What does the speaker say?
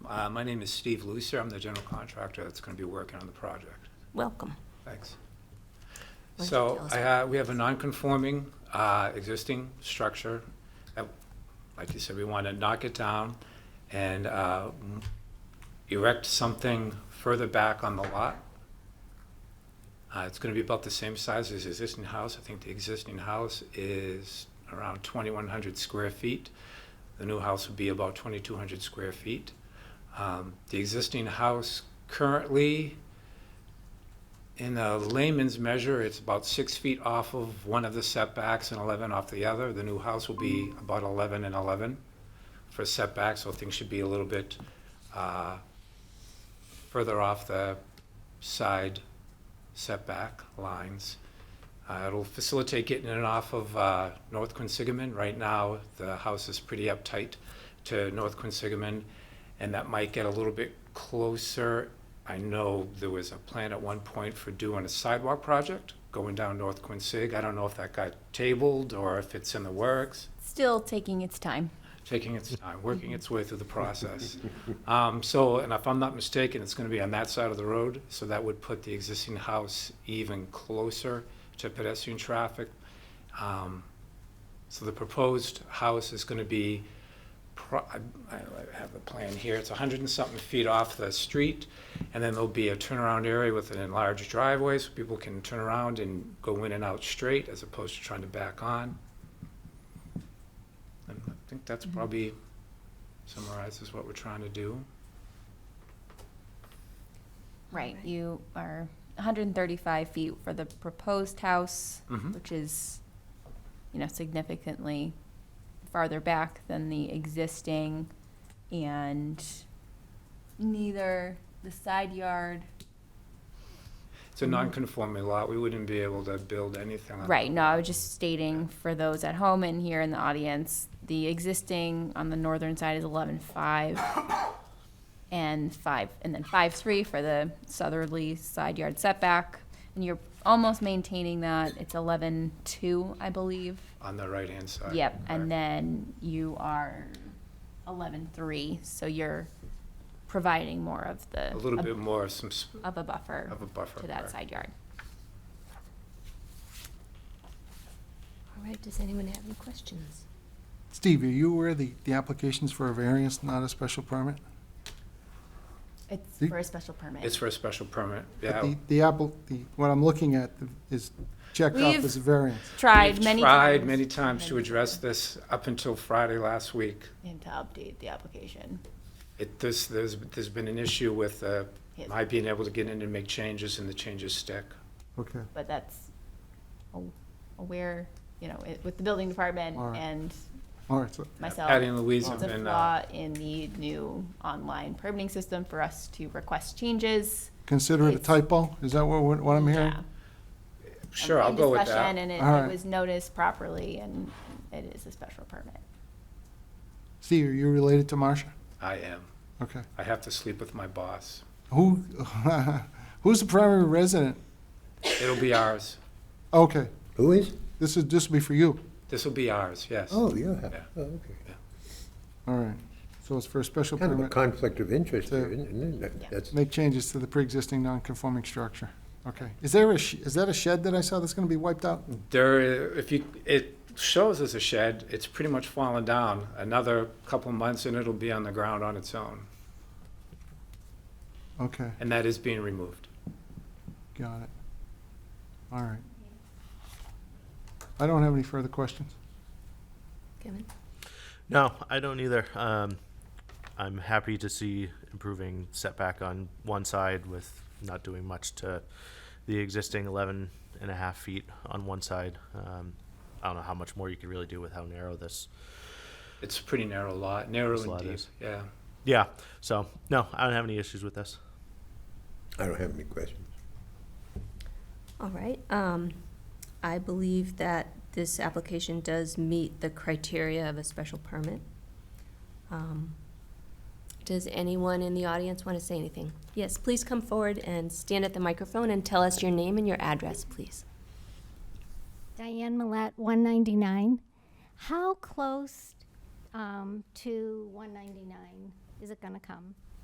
Uh, My name is Steve Lucer. I'm the general contractor that's going to be working on the project. Welcome. Thanks. Why don't you So tell us I ha- we have a non-conforming uh, existing structure. that, Like you said, we want to knock it down and uh, m- erect something further back on the lot. Uh, It's going to be about the same size as the existing house. I think the existing house is around 2,100 square feet. The new house would be about 2,200 square feet. Um, The existing house currently, in a layman's measure, it's about six feet off of one of the setbacks and 11 off the other. The new house will be about 11 and 11 for setbacks, so things should be a little bit uh, further off the side setback lines. Uh, It'll facilitate getting in and off of uh, North Quinsigamon. Right now, the house is pretty uptight to North Quinsigamon, and that might get a little bit closer. I know there was a plan at one point for doing a sidewalk project going down North Quinsig. I don't know if that got tabled or if it's in the works Still taking its time. taking its time, working its way through the process. Um, So, and if I'm not mistaken, it's going to be on that side of the road, so that would put the existing house even closer to pedestrian traffic. Um, So the proposed house is going to be, pro- I I have the plan here, it's 100 and something feet off the street, and then there'll be a turnaround area with an enlarged driveway, so people can turn around and go in and out straight, as opposed to trying to back on. And I think that's Mm-hmm. probably summarizes what we're trying to do. Right. You are 135 feet for the proposed house, Mhm. which is, you know, significantly farther back than the existing. And neither the side yard, It's a non-conforming lot, we wouldn't be able to build anything on. Mm-hmm. right, no, I was just stating for those at home and here in the audience, the existing on the northern side is 11.5 and 5, and then 5.3 for the southerly side yard setback. And you're almost maintaining that. It's 11.2, I believe. On the right-hand side. Yep, Right. and then you are 11.3, so you're providing more of the. A little bit more, of some, s- Of a buffer. of a buffer, To that right. side yard. All right, does anyone have any questions? Steve, are you aware the, the application's for a variance, not a special permit? It's The- for a special permit. it's for a special permit, But yeah. The, the apple, the, what I'm looking at is checked off We've- as a variance. Tried We've many times. Tried many times to address this up until Friday last week. And to update the application. It, this, there's, there's been an issue with, uh, Yes. my being able to get in and make changes and the changes stick. Okay, But that's aw- aware, you know, it- with the building department All right. and all right, so, Patty myself. and Louise have It's a been, uh, flaw in the new online permitting system for us to request changes. consider it a It's- typo, is that what, what I'm hearing? Yeah. sure, Um, I'll in go with discussion, that. And it- All right. it was noticed properly and it is a special permit. Steve, are you related to Marcia? I am, Okay. I have to sleep with my boss. Who, who's the primary resident? It'll be ours, Okay, Who is? this is, this will be for you, this will be ours, yes. Oh, you Yeah. have, oh, okay. all right. So it's for a special Kind of a permit, conflict of interest To- here, isn't it? Yeah. That's, make changes to the pre-existing non-conforming structure. Okay, is there a, sh- is that a shed that I saw that's gonna be wiped out? Mm. There, if you, it shows as a shed, it's pretty much fallen down. Another couple months and it'll be on the ground on its own, Okay. and that is being removed. Got it. All right. I don't have any further questions. Kevin? No, I don't either. Um, I'm happy to see improving setback on one side with not doing much to the existing 11 and a half feet on one side. Um, I don't know how much more you could really do with how narrow this. It's a pretty narrow lot, narrow This and lot deep, is. yeah. Yeah, so no, I don't have any issues with this. I don't have any questions. All right, um, I believe that this application does meet the criteria of a special permit. Um, Does anyone in the audience want to say anything? Yes, please come forward and stand at the microphone and tell us your name and your address, please. Diane Millet, 199. How close um, to 199 is it going to come?